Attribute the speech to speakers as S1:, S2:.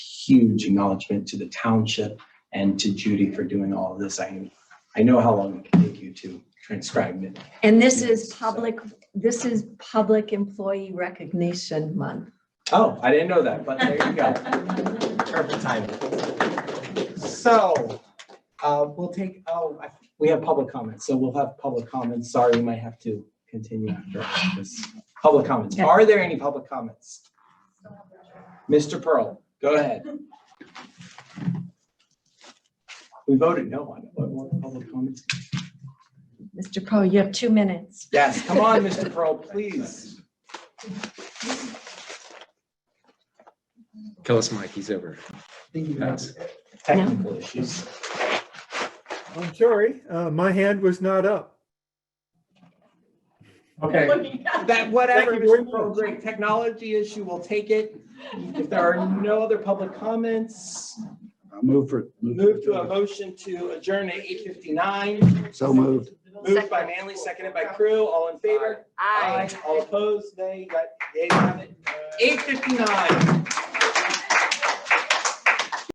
S1: huge acknowledgement to the township and to Judy for doing all of this. I, I know how long it can take you to transcribe it.
S2: And this is
S1: Yes, so-
S2: public, this is Public Employee Recognition Month.
S1: Oh, I didn't know that, but there you go. Perfect timing. So, uh, we'll take, oh, I- we have public comments, so we'll have public comments. Sorry, we might have to continue after all this. Public comments.
S2: Okay.
S1: Are there any public comments? Mr. Pearl, go ahead. We voted no on it. What- what public comments?
S2: Mr. Poe, you have two minutes.
S1: Yes, come on, Mr. Pearl, please.
S3: Tell us, Mike, he's over. Thanks.
S1: Technical issues.
S4: I'm sorry, uh, my hand was not up.
S1: Okay. That whatever,
S4: Thank you very
S1: Mr. Pearl,
S4: much.
S1: great technology issue, we'll take it. If there are no other public comments,
S5: I'll Move for.
S1: move to a motion to adjourn at eight fifty-nine.
S5: So moved.
S1: Moved by Manley, seconded by Crew, all in favor? All opposed, nay, you got, ayes have it. Eight fifty-nine.